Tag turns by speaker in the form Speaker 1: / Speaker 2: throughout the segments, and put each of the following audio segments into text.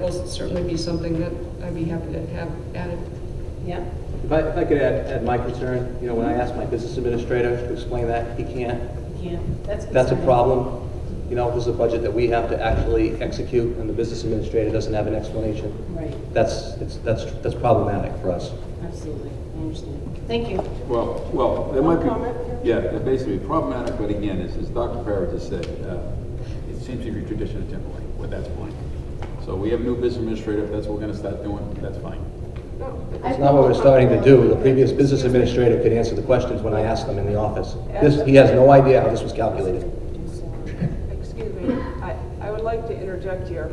Speaker 1: will certainly be something that I'd be happy to have added.
Speaker 2: Yeah.
Speaker 3: If I, if I could add, add my concern, you know, when I asked my business administrator to explain that, he can't.
Speaker 2: Yeah, that's.
Speaker 3: That's a
Speaker 2: concerning.
Speaker 3: problem. You know, this is a budget that we have to actually execute, and the business administrator doesn't have an explanation.
Speaker 2: Right,
Speaker 3: That's, it's, that's, that's problematic for us.
Speaker 2: absolutely, I understand. Thank you.
Speaker 4: Well, well, there might be.
Speaker 2: Comment?
Speaker 4: Yeah, they're basically problematic, but again, as, as Dr. Farah just said, uh, it seems to be tradition at Timberlake, well, that's fine. So we have new business administrator, if that's what we're gonna start doing, that's fine.
Speaker 3: It's not what we're starting to do. The previous business administrator could answer the questions when I asked them in the office. This, he has no idea how this was calculated.
Speaker 5: Excuse me, I, I would like to interject here.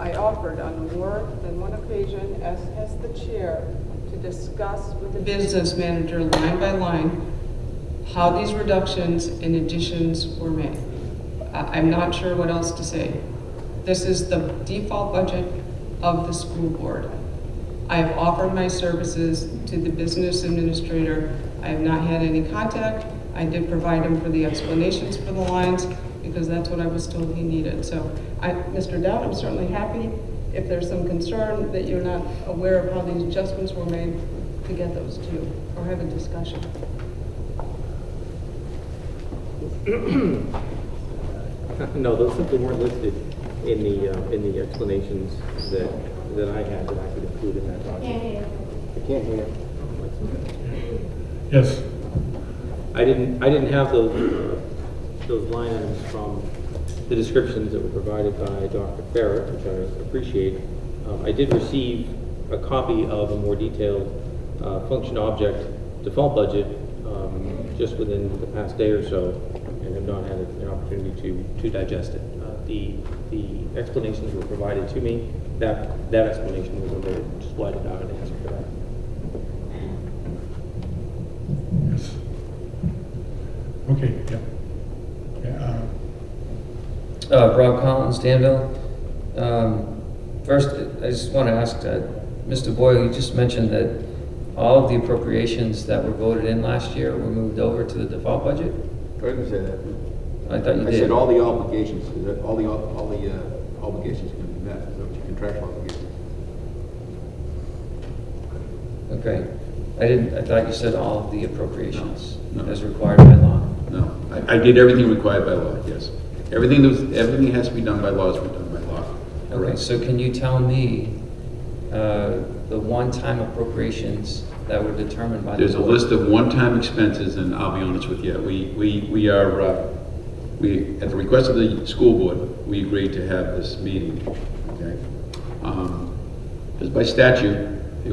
Speaker 5: I offered on more than one occasion, as has the chair, to discuss with
Speaker 1: The
Speaker 5: the.
Speaker 1: business manager, line by line, how these reductions and additions were made. I, I'm not sure what else to say. This is the default budget of the school board. I have offered my services to the business administrator. I have not had any contact. I did provide him for the explanations for the lines because that's what I was told he needed. So I, Mr. Dowd, I'm certainly happy if there's some concern that you're not aware of how these adjustments were made to get those to you or have a discussion.
Speaker 6: No, those simply weren't listed in the, uh, in the explanations that, that I had that I could include in that document. I can't hear.
Speaker 7: Yes,
Speaker 6: I didn't, I didn't have those, those line items from the descriptions that were provided by Dr. Ferrer, which I appreciate. Um, I did receive a copy of a more detailed uh, function object default budget um, just within the past day or so, and have not had an opportunity to, to digest it. Uh, The, the explanations were provided to me, that, that explanation was omitted, which is why I did not have an answer for that.
Speaker 7: yes. Okay, yeah. Yeah, uh,
Speaker 8: Uh, Rob Collins, Danville. Um, First, I just want to ask, uh, Mr. Boyle, you just mentioned that all of the appropriations that were voted in last year were moved over to the default budget?
Speaker 4: I didn't say that.
Speaker 8: I thought you
Speaker 4: I
Speaker 8: did.
Speaker 4: said all the obligations, that all the, all the uh, obligations can be met, so it's contractual obligations.
Speaker 8: Okay. I didn't, I thought you said all of the appropriations
Speaker 4: No, no.
Speaker 8: as required by law.
Speaker 4: No, I, I did everything required by law, yes. Everything that was, everything has to be done by law is done by law.
Speaker 8: Okay, so can you tell me uh, the one-time appropriations that were determined by the
Speaker 4: There's a
Speaker 8: board?
Speaker 4: list of one-time expenses, and I'll be honest with you, we, we, we are, uh, we, at the request of the school board, we agreed to have this meeting, okay? Um, Because by statute, it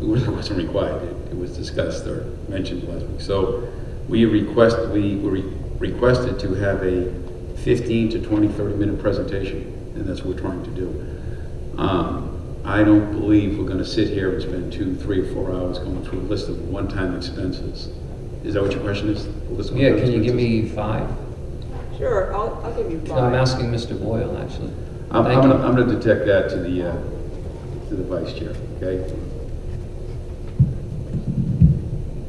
Speaker 4: it really wasn't required, It- it was discussed or mentioned last week. So we request, we were re- requested to have a 15 to 20, 30-minute presentation, and that's what we're trying to do. Um, I don't believe we're gonna sit here and spend two, three, or four hours going through a list of one-time expenses. Is that what your question is? A list of
Speaker 8: Yeah,
Speaker 4: one-time
Speaker 8: can you give
Speaker 4: expenses?
Speaker 8: me five?
Speaker 5: Sure, I'll, I'll give you
Speaker 8: No, I'm
Speaker 5: five.
Speaker 8: asking Mr. Boyle, actually.
Speaker 4: I'm,
Speaker 8: Thank
Speaker 4: I'm
Speaker 8: you.
Speaker 4: gonna, I'm gonna detect that to the, uh, to the vice chair, okay?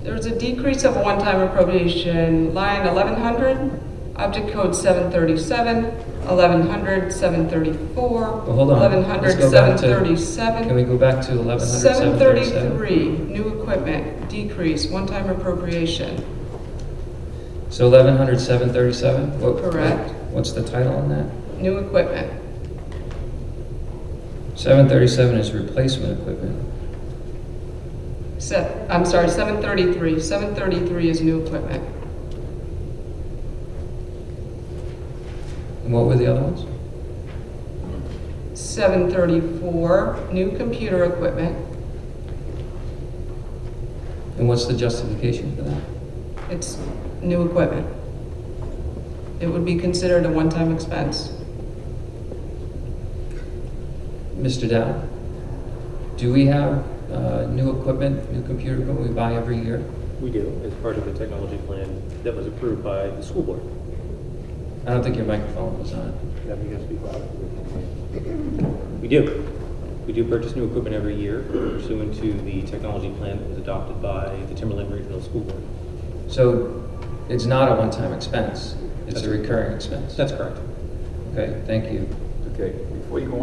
Speaker 1: There was a decrease of one-time appropriation, line 1100, object code 737, 1100, 734,
Speaker 8: Well, hold on.
Speaker 1: 1100,
Speaker 8: Let's go back to- Can we
Speaker 1: 737,
Speaker 8: go back to 1100, 737?
Speaker 1: 733, new equipment, decrease, one-time appropriation.
Speaker 8: So 1100, 737? What-
Speaker 1: Correct.
Speaker 8: What's the title on that?
Speaker 1: New equipment,
Speaker 8: 737 is replacement equipment.
Speaker 1: se, I'm sorry, 733, 733 is new equipment.
Speaker 8: And what were the other ones?
Speaker 1: 734, new computer equipment.
Speaker 8: And what's the justification for that?
Speaker 1: It's new equipment. It would be considered a one-time expense.
Speaker 8: Mr. Dow, do we have uh, new equipment, new computer equipment we buy every year?
Speaker 6: We do, as part of the technology plan that was approved by the school board.
Speaker 8: I don't think your microphone was on.
Speaker 6: That we gotta speak louder. We do. We do purchase new equipment every year pursuant to the technology plan that was adopted by the Timberland Regional School Board.
Speaker 8: So it's not a one-time expense, it's a recurring expense?
Speaker 6: That's correct.
Speaker 8: Okay, thank you.
Speaker 4: Okay, Okay, before you go